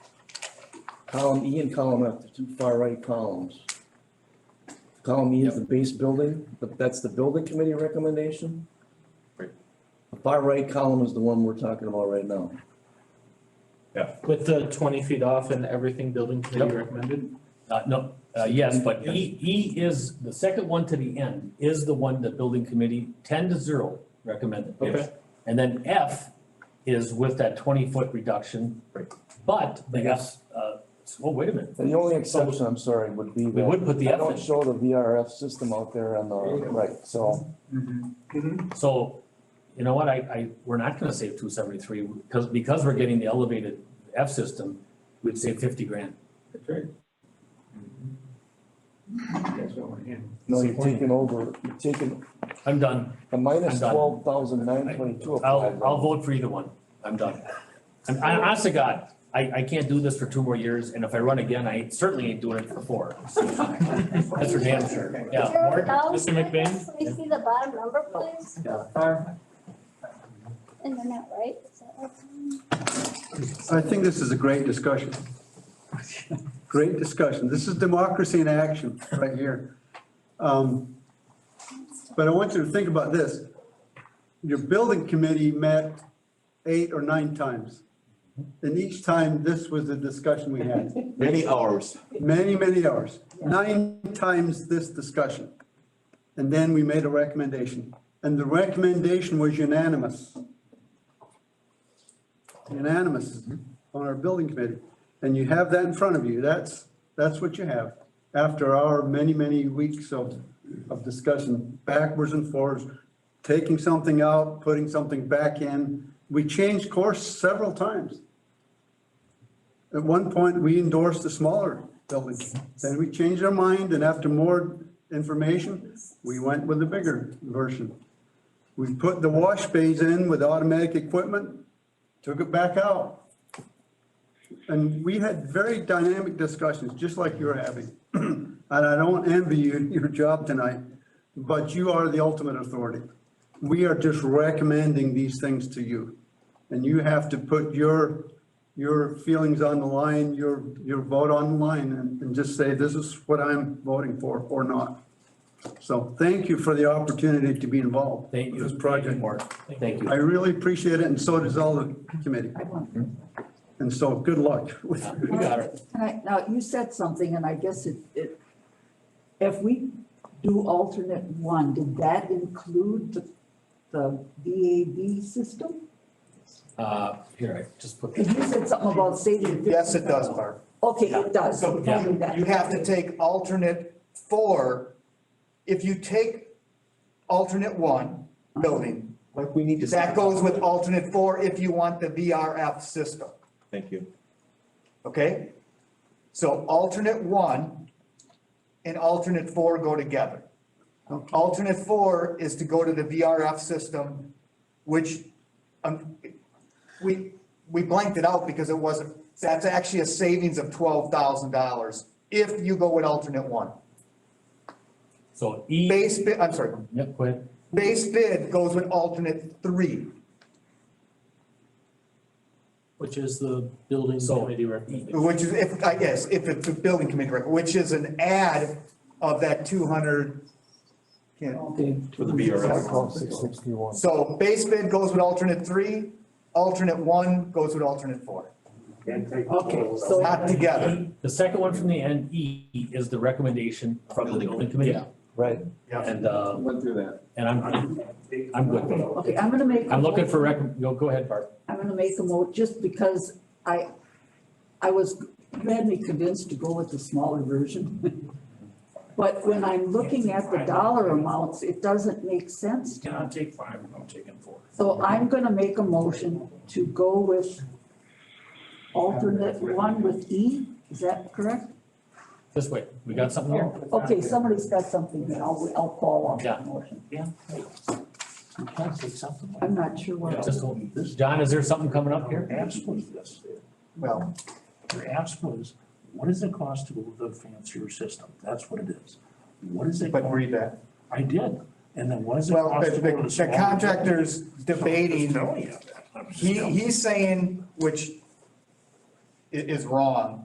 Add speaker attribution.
Speaker 1: column E and column F, the two far right columns. Column E is the base building, but that's the building committee recommendation.
Speaker 2: Right.
Speaker 1: The far right column is the one we're talking about right now.
Speaker 3: With the twenty feet off and everything building committee recommended?
Speaker 4: Uh, no, uh, yes, but E, E is, the second one to the end is the one that building committee, ten to zero recommended.
Speaker 3: Okay.
Speaker 4: And then F is with that twenty foot reduction.
Speaker 2: Right.
Speaker 4: But the F, uh, oh, wait a minute,
Speaker 1: And the only exception, I'm sorry, would be
Speaker 4: we
Speaker 1: that
Speaker 4: would put the
Speaker 1: I
Speaker 4: F
Speaker 1: don't
Speaker 4: in,
Speaker 1: show the VRF system out there on the right, so.
Speaker 4: so, you know what, I, I, we're not gonna save two seventy-three, because, because we're getting the elevated F system, we'd save fifty grand.
Speaker 2: That's right.
Speaker 1: No, you're taking over, you're taking
Speaker 4: I'm done,
Speaker 1: a minus
Speaker 4: I'm done.
Speaker 1: twelve thousand nine twenty-two.
Speaker 4: I'll, I'll vote for either one, I'm done. I'm, I, honest to God, I, I can't do this for two more years, and if I run again, I certainly ain't doing it for four. That's for damn sure, yeah.
Speaker 5: Jared, now,
Speaker 3: Mr.
Speaker 5: can
Speaker 3: McBain?
Speaker 5: we see the bottom number, please?
Speaker 6: Uh,
Speaker 5: And they're not right, is that right?
Speaker 6: I think this is a great discussion. Great discussion. This is democracy in action right here. Um, But I want you to think about this. Your building committee met eight or nine times. And each time, this was the discussion we had.
Speaker 2: Many hours.
Speaker 6: Many, many hours. Nine times this discussion. And then we made a recommendation. And the recommendation was unanimous. Unanimous on our building committee. And you have that in front of you. That's, that's what you have after our many, many weeks of, of discussion, backwards and forwards, taking something out, putting something back in. We changed course several times. At one point, we endorsed a smaller building. Then we changed our mind and after more information, we went with the bigger version. We put the wash bays in with automatic equipment, took it back out. And we had very dynamic discussions, just like you're having. And I don't envy you your job tonight, but you are the ultimate authority. We are just recommending these things to you. And you have to put your, your feelings on the line, your, your vote on the line and, and just say, this is what I'm voting for or not. So thank you for the opportunity to be involved
Speaker 4: Thank
Speaker 6: with
Speaker 4: you.
Speaker 6: this project.
Speaker 4: Mark, thank
Speaker 6: I
Speaker 4: you.
Speaker 6: really appreciate it and so does all the committee. And so good luck with
Speaker 4: Yeah, We got it,
Speaker 7: Can I, now, you said something, and I guess it, it, if we do alternate one, did that include the, the VAB system?
Speaker 4: uh, here, I just put.
Speaker 7: Because you said something about saving.
Speaker 8: Yes, it does, Barb.
Speaker 7: Okay, it does.
Speaker 8: So
Speaker 4: Yeah.
Speaker 8: you have to take alternate four. If you take alternate one building,
Speaker 2: Like, we need
Speaker 7: Uh-huh.
Speaker 2: to.
Speaker 8: that goes with alternate four if you want the VRF system,
Speaker 2: Thank you.
Speaker 8: okay? So alternate one and alternate four go together. Alternate four is to go to the VRF system, which, um, we, we blanked it out because it wasn't, that's actually a savings of twelve thousand dollars if you go with alternate one.
Speaker 4: So E,
Speaker 8: Base bid, I'm sorry,
Speaker 4: yep, go ahead.
Speaker 8: base bid goes with alternate three.
Speaker 3: Which is the building
Speaker 4: So- E,
Speaker 3: committee recommendation?
Speaker 8: Which is, if, I guess, if it's a building committee record, which is an add of that two hundred.
Speaker 7: Okay.
Speaker 2: For the VRF.
Speaker 1: Six sixty-one.
Speaker 8: So base bid goes with alternate three, alternate one goes with alternate four,
Speaker 4: Okay, so.
Speaker 8: not together.
Speaker 4: E, The second one from the end, E, is the recommendation from the building committee.
Speaker 1: Right.
Speaker 4: And, uh,
Speaker 2: Went through that.
Speaker 4: and I'm, I'm good with it.
Speaker 7: Okay, I'm gonna make. a
Speaker 4: I'm looking for
Speaker 7: motion.
Speaker 4: rec, go, go ahead, Barb.
Speaker 7: I'm gonna make a mo, just because I, I was, you had me convinced to go with the smaller version. But when I'm looking at the dollar amounts, it doesn't make sense to
Speaker 3: I'll take five, I'm taking four.
Speaker 7: So I'm gonna make a motion to go with alternate one with E, is that correct?
Speaker 4: This way, we got something here?
Speaker 7: Okay, somebody's got something here, I'll, I'll call off that motion.
Speaker 4: Yeah.
Speaker 7: I'm not sure
Speaker 4: Yeah,
Speaker 7: what.
Speaker 4: just hold- John, is there something coming up here?
Speaker 8: Well,
Speaker 9: Your ask was, what does it cost to go with a fancier system? That's what it is. What is it?
Speaker 8: but read that.
Speaker 9: I did. And then what does it
Speaker 8: Well,
Speaker 9: cost
Speaker 8: the,
Speaker 9: to go with a
Speaker 8: the
Speaker 9: smaller?
Speaker 8: the contractor's
Speaker 9: I'm
Speaker 8: debating,
Speaker 9: just telling you. I'm just
Speaker 8: he,
Speaker 9: telling you.
Speaker 8: he's saying, which i- is wrong,